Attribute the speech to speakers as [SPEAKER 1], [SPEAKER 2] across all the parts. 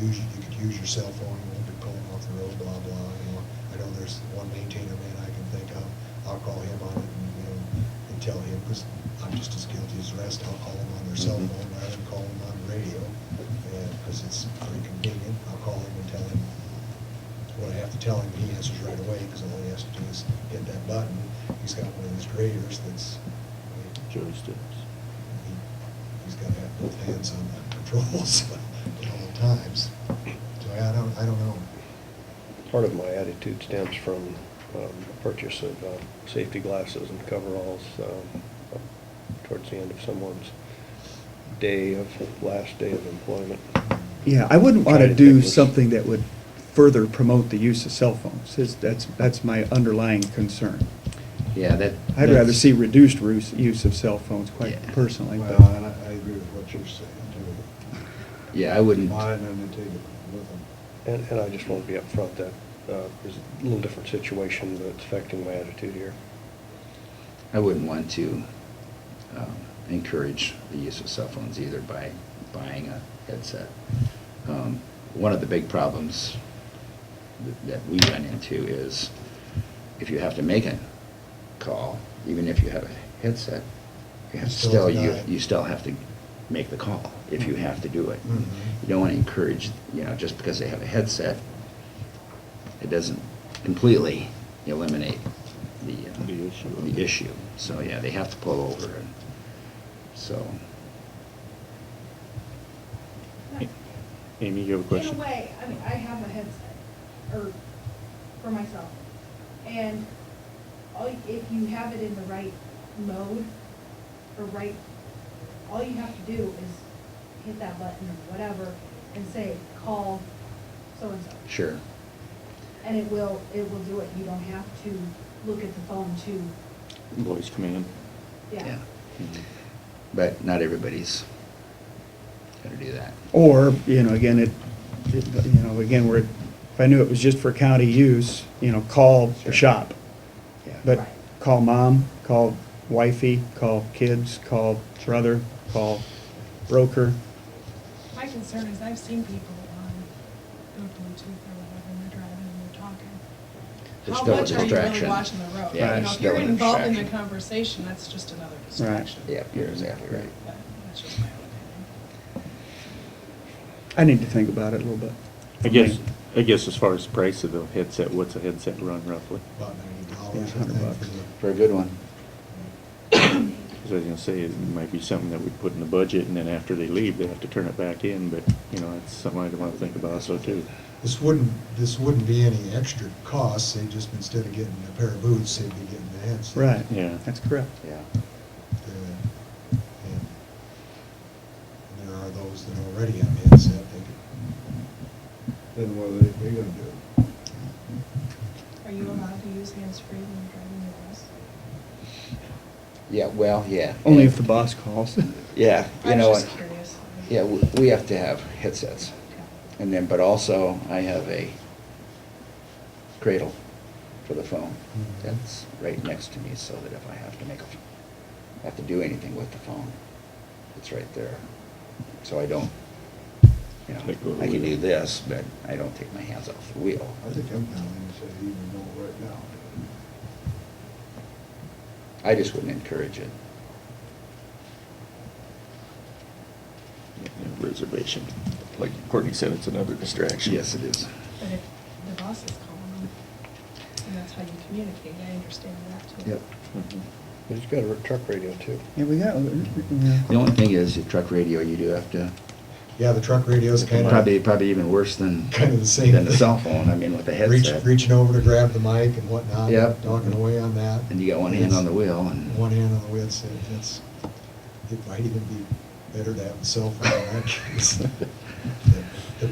[SPEAKER 1] use, you could use your cell phone, you won't be pulling off the road, blah, blah, you know. I know there's one maintainer man I can think of, I'll call him on it and, you know, and tell him, because I'm just as guilty as the rest, I'll call them on their cell
[SPEAKER 2] Mhm.
[SPEAKER 1] phone rather than call them on the radio, because it's pretty convenient. I'll call him and tell him what I have to tell him, he answers right away, because all he has to do is hit that button. He's got one of these graders that's, I mean,
[SPEAKER 2] joysticks.
[SPEAKER 1] he, he's gotta have both hands on the controls at all times. So I don't, I don't know.
[SPEAKER 3] Part of my attitude stems from um, purchase of uh, safety glasses and coveralls um, towards the end of someone's day of, last day of employment.
[SPEAKER 4] Yeah, I wouldn't want
[SPEAKER 3] Try
[SPEAKER 4] to
[SPEAKER 3] to
[SPEAKER 4] do
[SPEAKER 3] think was-
[SPEAKER 4] something that would further promote the use of cell phones. Is- That's, that's my underlying concern.
[SPEAKER 2] Yeah, that.
[SPEAKER 4] I'd rather see reduced ruse- use of cell phones,
[SPEAKER 2] Yeah.
[SPEAKER 4] quite personally. but-
[SPEAKER 1] Well, and I, I agree with what you're saying too.
[SPEAKER 2] Yeah, I wouldn't.
[SPEAKER 1] Mine and they take it with them.
[SPEAKER 3] And, and I just want to be upfront that uh, there's a little different situation that's affecting my attitude here.
[SPEAKER 2] I wouldn't want to um, encourage the use of cell phones either by buying a headset. Um, One of the big problems th- that we run into is if you have to make a call, even if you have a headset, you have to
[SPEAKER 1] Still
[SPEAKER 2] still, you
[SPEAKER 1] deny it.
[SPEAKER 2] you still have to make the call if you have to do it.
[SPEAKER 1] Mhm.
[SPEAKER 2] You don't want to encourage, you know, just because they have a headset, it doesn't completely eliminate the, uh,
[SPEAKER 3] The issue.
[SPEAKER 2] the issue. So, yeah, they have to pull over and, so.
[SPEAKER 3] Amy, you have a question?
[SPEAKER 5] In a way, I mean, I have a headset, or for myself, and all, if you have it in the right mode, or right, all you have to do is hit that button or whatever, and say, call so-and-so.
[SPEAKER 2] Sure.
[SPEAKER 5] And it will, it will do it, you don't have to look at the phone to,
[SPEAKER 6] Voice command.
[SPEAKER 5] yeah.
[SPEAKER 2] But not everybody's gonna do that.
[SPEAKER 4] Or, you know, again, it, it- you know, again, where, it- if I knew it was just for county use, you know, call the
[SPEAKER 2] Sure.
[SPEAKER 4] shop.
[SPEAKER 2] Yeah.
[SPEAKER 4] But
[SPEAKER 5] Right.
[SPEAKER 4] call mom, call wifey, call kids, call brother, call broker.
[SPEAKER 7] My concern is I've seen people on their Bluetooth or whatever, and they're driving and they're talking.
[SPEAKER 2] There's
[SPEAKER 7] How
[SPEAKER 2] still a
[SPEAKER 7] much are you really
[SPEAKER 2] distraction.
[SPEAKER 7] watching the road?
[SPEAKER 2] Yeah,
[SPEAKER 4] Right.
[SPEAKER 7] You
[SPEAKER 2] there's
[SPEAKER 7] know, if
[SPEAKER 2] still
[SPEAKER 7] you're
[SPEAKER 2] a
[SPEAKER 7] involved in the
[SPEAKER 2] distraction.
[SPEAKER 7] conversation, that's just another distraction.
[SPEAKER 2] Yeah, you're exactly right.
[SPEAKER 7] But that's just my own opinion.
[SPEAKER 4] I need to think about it a little bit.
[SPEAKER 6] I guess, I guess as far as price of the headset, what's a headset run roughly?
[SPEAKER 1] About ninety dollars, I
[SPEAKER 4] Yeah, 100
[SPEAKER 1] think,
[SPEAKER 4] bucks.
[SPEAKER 1] for
[SPEAKER 2] For a good one.
[SPEAKER 6] Because I was gonna say, it might be something that we put in the budget, and then after they leave, they have to turn it back in, but, you know, that's something I'd wanna think about also too.
[SPEAKER 1] the- This wouldn't, this wouldn't be any extra cost, they just, instead of getting a pair of boots, they'd be getting the headset.
[SPEAKER 4] Right.
[SPEAKER 6] Yeah.
[SPEAKER 4] That's correct.
[SPEAKER 2] Yeah.
[SPEAKER 1] Uh, And and there are those that already have headset, they could.
[SPEAKER 8] Then what are they, they gonna do?
[SPEAKER 7] Are you allowed to use hands-free when you're driving your bus?
[SPEAKER 2] Yeah, well, yeah.
[SPEAKER 4] Only if the boss calls.
[SPEAKER 2] Yeah, you
[SPEAKER 7] I
[SPEAKER 2] know
[SPEAKER 7] was
[SPEAKER 2] what?
[SPEAKER 7] just curious.
[SPEAKER 2] Yeah, we we have to have headsets.
[SPEAKER 7] Okay.
[SPEAKER 2] And then, but also, I have a cradle for the phone.
[SPEAKER 1] Mhm.
[SPEAKER 2] That's right next to me, so that if I have to make, a have to do anything with the phone, it's right there. So I don't, you know,
[SPEAKER 6] Like go to
[SPEAKER 2] I can
[SPEAKER 6] the
[SPEAKER 2] do
[SPEAKER 6] wheel.
[SPEAKER 2] this, but I don't take my hands off the wheel.
[SPEAKER 8] I think I'm telling you, say even know right now.
[SPEAKER 2] I just wouldn't encourage it.
[SPEAKER 6] Reservation. Like Courtney said, it's another distraction.
[SPEAKER 2] Yes, it is.
[SPEAKER 7] But if the boss is calling them, and that's how you communicate, I understand that too.
[SPEAKER 2] Yep.
[SPEAKER 6] Mhm.
[SPEAKER 3] But he's got a truck radio too.
[SPEAKER 4] Yeah, we got.
[SPEAKER 2] The only thing is, your truck radio, you do have to,
[SPEAKER 1] Yeah, the truck radio's kind of.
[SPEAKER 2] probably, probably even worse than,
[SPEAKER 1] Kind of the same.
[SPEAKER 2] than the cell phone, I mean, with the headset.
[SPEAKER 1] Reaching over to grab the mic and whatnot.
[SPEAKER 2] Yep.
[SPEAKER 1] Talking away on that.
[SPEAKER 2] And you got one hand on the wheel and.
[SPEAKER 1] One hand on the wheel, so that's, it might even be better to have a cell phone in that case. The- the-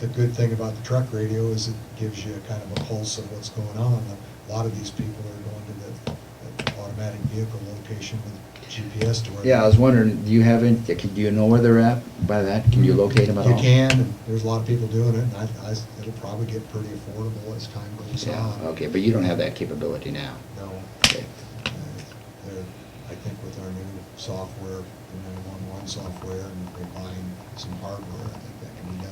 [SPEAKER 1] The good thing about the truck radio is it gives you a kind of a pulse of what's going on. A lot of these people are going to the the automatic vehicle location with GPS to where.
[SPEAKER 2] Yeah, I was wondering, do you have any, do you know where they're at by that? Can you locate them at all?
[SPEAKER 1] You can, and there's a lot of people doing it, and I, I, it'll probably get pretty affordable as time goes
[SPEAKER 2] Yeah,
[SPEAKER 1] on.
[SPEAKER 2] okay, but you don't have that capability now.
[SPEAKER 1] No.
[SPEAKER 2] Okay.
[SPEAKER 1] Uh, there- I think with our new software, the 911 software, and if we buying some hardware, I think that can be done.